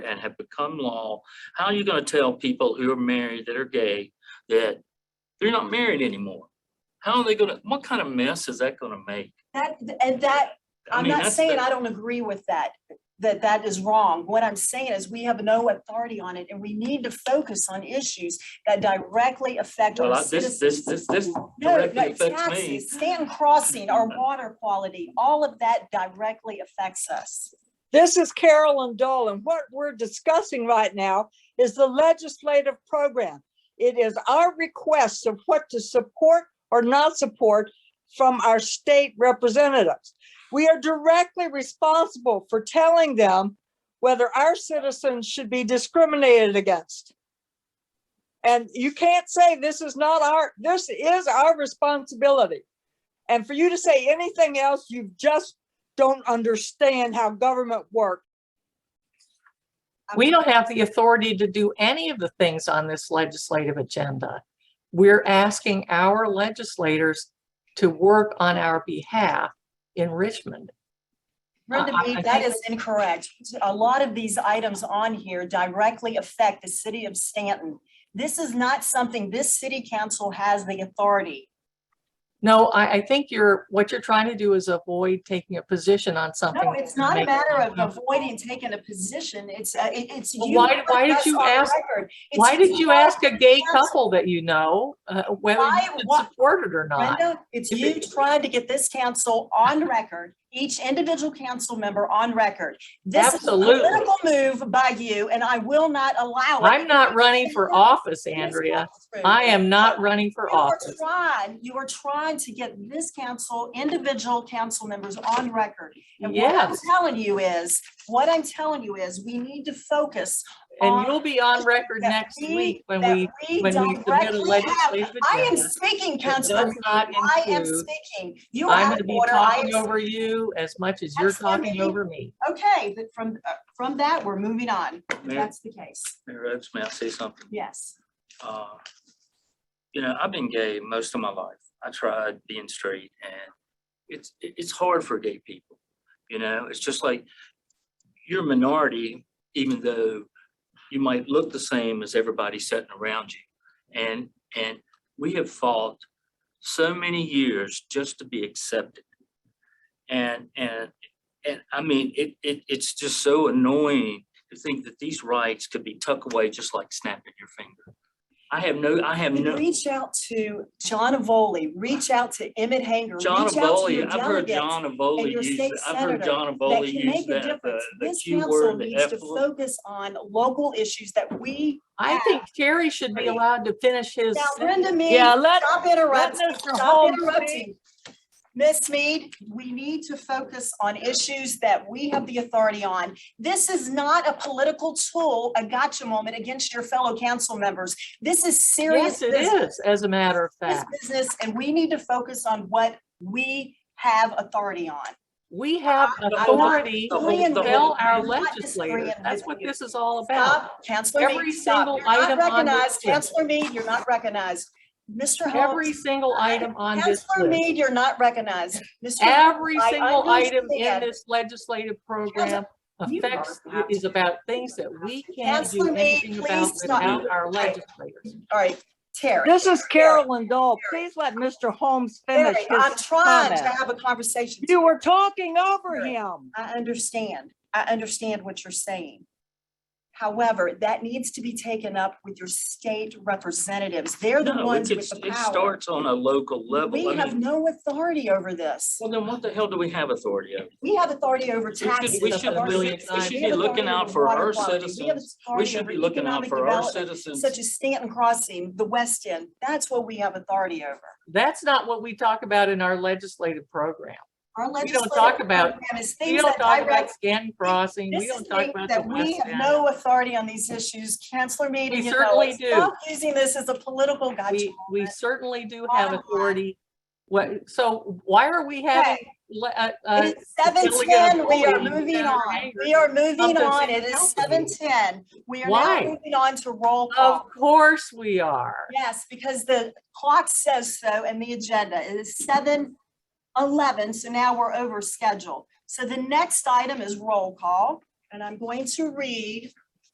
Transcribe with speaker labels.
Speaker 1: and have become law, how are you gonna tell people who are married that are gay that they're not married anymore? How are they gonna, what kind of mess is that gonna make?
Speaker 2: That, and that,
Speaker 1: I
Speaker 2: I'm
Speaker 1: mean,
Speaker 2: not
Speaker 1: that's
Speaker 2: saying
Speaker 1: the-
Speaker 2: I don't agree with that, that that is wrong. What I'm saying is we have no authority on it and we need to focus on issues that directly affect
Speaker 1: Well,
Speaker 2: our
Speaker 1: I- This, this,
Speaker 2: citizens.
Speaker 1: this, this
Speaker 2: No, no,
Speaker 1: directly affects me.
Speaker 2: taxes, Stanton Crossing, our water quality, all of that directly affects us.
Speaker 3: This is Carolyn Dolan. What we're discussing right now is the legislative program. It is our request of what to support or not support from our state representatives. We are directly responsible for telling them whether our citizens should be discriminated against. And you can't say this is not our, this is our responsibility. And for you to say anything else, you've just don't understand how government works.
Speaker 4: We don't have the authority to do any of the things on this legislative agenda. We're asking our legislators to work on our behalf in Richmond.
Speaker 2: Brenda
Speaker 4: I-
Speaker 2: B,
Speaker 4: I
Speaker 2: that
Speaker 4: think-
Speaker 2: is incorrect. A lot of these items on here directly affect the city of Stanton. This is not something this city council has the authority.
Speaker 4: No, I, I think you're, what you're trying to do is avoid taking a position on something.
Speaker 2: No,
Speaker 4: that
Speaker 2: it's
Speaker 4: would
Speaker 2: not a
Speaker 4: make-
Speaker 2: matter of avoiding taking a position. It's, uh, it- it's.
Speaker 4: Well,
Speaker 2: you
Speaker 4: why did-
Speaker 2: put
Speaker 4: why did
Speaker 2: us
Speaker 4: you
Speaker 2: on
Speaker 4: ask-
Speaker 2: record. It's
Speaker 4: Why did you ask a gay
Speaker 2: council.
Speaker 4: couple that you know, uh, whether
Speaker 2: Why-
Speaker 4: you should
Speaker 2: why-
Speaker 4: support it or not?
Speaker 2: Brenda, it's you trying to get this council on record, each individual council member on record. This is a
Speaker 4: Absolutely.
Speaker 2: political move by you and I will not allow it.
Speaker 4: I'm not running for office,
Speaker 2: It is
Speaker 4: Andrea.
Speaker 2: not true.
Speaker 4: I am not running for
Speaker 2: You are
Speaker 4: office.
Speaker 2: trying, you are trying to get this council, individual council members on record. And what I'm
Speaker 4: Yes.
Speaker 2: telling you is, what I'm telling you is, we need to focus on
Speaker 4: And you'll be on record
Speaker 2: Uh, that
Speaker 4: next
Speaker 2: we-
Speaker 4: week when
Speaker 2: that
Speaker 4: we,
Speaker 2: we
Speaker 4: when we submit a
Speaker 2: directly have.
Speaker 4: legislative
Speaker 2: I am
Speaker 4: agenda.
Speaker 2: speaking,
Speaker 4: It does
Speaker 2: Councilman.
Speaker 4: not
Speaker 2: I am
Speaker 4: include-
Speaker 2: speaking. You are
Speaker 4: I'm
Speaker 2: out
Speaker 4: gonna
Speaker 2: of
Speaker 4: be
Speaker 2: order. I
Speaker 4: talking
Speaker 2: am-
Speaker 4: over you as much as you're
Speaker 2: That's fine,
Speaker 4: talking
Speaker 2: baby.
Speaker 4: over me.
Speaker 2: Okay, but from, uh, from that, we're moving on. If
Speaker 1: Mayor-
Speaker 2: That's the case.
Speaker 1: Mayor Rhodes, may I say something?
Speaker 2: Yes.
Speaker 1: Uh, You know, I've been gay most of my life. I tried being straight and it's, it- it's hard for gay people. You know, it's just like you're a minority, even though you might look the same as everybody sitting around you. And, and we have fought so many years just to be accepted. And, and, and I mean, it, it, it's just so annoying to think that these rights could be tucked away just like snapping your finger. I have no, I have no.
Speaker 2: Reach out to John Avoli, reach out to Emmett Hanger.
Speaker 1: John
Speaker 2: reach out to
Speaker 1: Avoli,
Speaker 2: your
Speaker 1: I've heard
Speaker 2: delegates.
Speaker 1: John Avoli
Speaker 2: your
Speaker 1: use,
Speaker 2: state
Speaker 1: that- I've heard
Speaker 2: senator
Speaker 1: John
Speaker 2: that
Speaker 1: Avoli
Speaker 2: can
Speaker 1: use
Speaker 2: make a
Speaker 1: that, uh, the,
Speaker 2: difference.
Speaker 1: the
Speaker 2: This
Speaker 1: Q
Speaker 2: council
Speaker 1: word, the
Speaker 2: needs
Speaker 1: F
Speaker 2: to
Speaker 1: word.
Speaker 2: focus on local issues that we,
Speaker 4: I think Terry should be
Speaker 2: Great.
Speaker 4: allowed to finish his.
Speaker 2: now
Speaker 4: sentence.
Speaker 2: Brenda Mead,
Speaker 3: Yeah, let,
Speaker 2: stop
Speaker 3: let
Speaker 2: interrupting,
Speaker 3: Mr.
Speaker 2: stop
Speaker 3: Holmes
Speaker 2: interrupting.
Speaker 3: speak.
Speaker 2: Ms. Mead, we need to focus on issues that we have the authority on. This is not a political tool, a gotcha moment against your fellow council members. This is serious
Speaker 4: Yes, it
Speaker 2: business.
Speaker 4: is, as a matter of
Speaker 2: this
Speaker 4: fact.
Speaker 2: business and we need to focus on what we have authority on.
Speaker 4: We have
Speaker 2: not
Speaker 4: authority
Speaker 1: The
Speaker 4: to
Speaker 1: whole- the
Speaker 4: tell
Speaker 1: whole-
Speaker 4: our
Speaker 2: I'm not disagreeing
Speaker 4: legislators. That's
Speaker 2: with
Speaker 4: what
Speaker 2: you.
Speaker 4: this is all about.
Speaker 2: Stop, Councilor
Speaker 4: Every
Speaker 2: Mead, stop.
Speaker 4: single
Speaker 2: You're not
Speaker 4: item on this
Speaker 2: recognized.
Speaker 4: list.
Speaker 2: Councilor Mead, you're not recognized. Mr.
Speaker 4: Every
Speaker 2: Holmes,
Speaker 4: single item on this
Speaker 2: Councilor
Speaker 4: list,
Speaker 2: Mead, you're not recognized. Mr. Holmes,
Speaker 4: every
Speaker 2: I
Speaker 4: single item in
Speaker 2: understand.
Speaker 4: this legislative program
Speaker 2: you are
Speaker 4: affects,
Speaker 2: out.
Speaker 4: is about things that we can't
Speaker 2: Councilor
Speaker 4: do
Speaker 2: Meade,
Speaker 4: anything about
Speaker 2: please stop.
Speaker 4: without our
Speaker 2: Okay.
Speaker 4: legislators.
Speaker 2: All right, Terry.
Speaker 3: This is Carolyn Dole. Please let Mr. Holmes finish
Speaker 2: Terry, I'm
Speaker 3: his
Speaker 2: trying to
Speaker 3: comment.
Speaker 2: have a conversation.
Speaker 3: You were talking over
Speaker 2: Terry.
Speaker 3: him.
Speaker 2: I understand. I understand what you're saying. However, that needs to be taken up with your state representatives. They're the
Speaker 1: No,
Speaker 2: ones
Speaker 1: it's, it's-
Speaker 2: with the
Speaker 1: it
Speaker 2: power.
Speaker 1: starts on a local
Speaker 2: We
Speaker 1: level. I
Speaker 2: have
Speaker 1: mean,
Speaker 2: no authority over this.
Speaker 1: well, then what the hell do we have authority over?
Speaker 2: We have authority over
Speaker 1: should- we
Speaker 2: taxes.
Speaker 1: should
Speaker 2: authority
Speaker 4: really- we
Speaker 2: over-
Speaker 4: should
Speaker 2: we
Speaker 4: be
Speaker 2: have
Speaker 1: looking
Speaker 2: authority
Speaker 1: out
Speaker 2: over
Speaker 1: for
Speaker 2: water
Speaker 1: our
Speaker 2: quality. We have
Speaker 1: We
Speaker 2: authority
Speaker 1: should be
Speaker 2: over
Speaker 1: looking out
Speaker 2: economic
Speaker 1: for our
Speaker 2: development,
Speaker 1: citizens.
Speaker 2: Such as Stanton Crossing, the West End, that's what we have authority over.
Speaker 4: That's not what we talk about in our legislative program.
Speaker 2: Our
Speaker 4: We don't
Speaker 2: legislative
Speaker 4: talk about-
Speaker 2: program is
Speaker 4: We
Speaker 2: things
Speaker 4: don't
Speaker 2: that
Speaker 4: talk about
Speaker 2: direct,
Speaker 4: Scan Crossing. We
Speaker 2: this
Speaker 4: don't
Speaker 2: is
Speaker 4: talk
Speaker 2: things
Speaker 4: about the
Speaker 2: that we
Speaker 4: West
Speaker 2: have
Speaker 4: End.
Speaker 2: no authority on these issues. Counselor Mead,
Speaker 4: We
Speaker 2: you know
Speaker 4: certainly
Speaker 2: it.
Speaker 4: do.
Speaker 2: Stop using this as a political gotcha.
Speaker 4: We, we certainly do have
Speaker 2: Bottom line.
Speaker 4: authority. What, so why are we having, le- uh, uh,
Speaker 2: It is seven ten, we are
Speaker 4: Delegate Foley,
Speaker 2: moving
Speaker 4: Senator
Speaker 2: on,
Speaker 4: Hager,
Speaker 2: we are moving
Speaker 4: something
Speaker 2: on,
Speaker 4: to
Speaker 2: it is
Speaker 4: help
Speaker 2: seven ten. We are now
Speaker 4: Why?
Speaker 2: moving on to roll
Speaker 4: of
Speaker 2: call.
Speaker 4: course we are.
Speaker 2: Yes, because the clock says so and the agenda It is seven eleven, so now we're over schedule. So the next item is roll call, and I'm going to read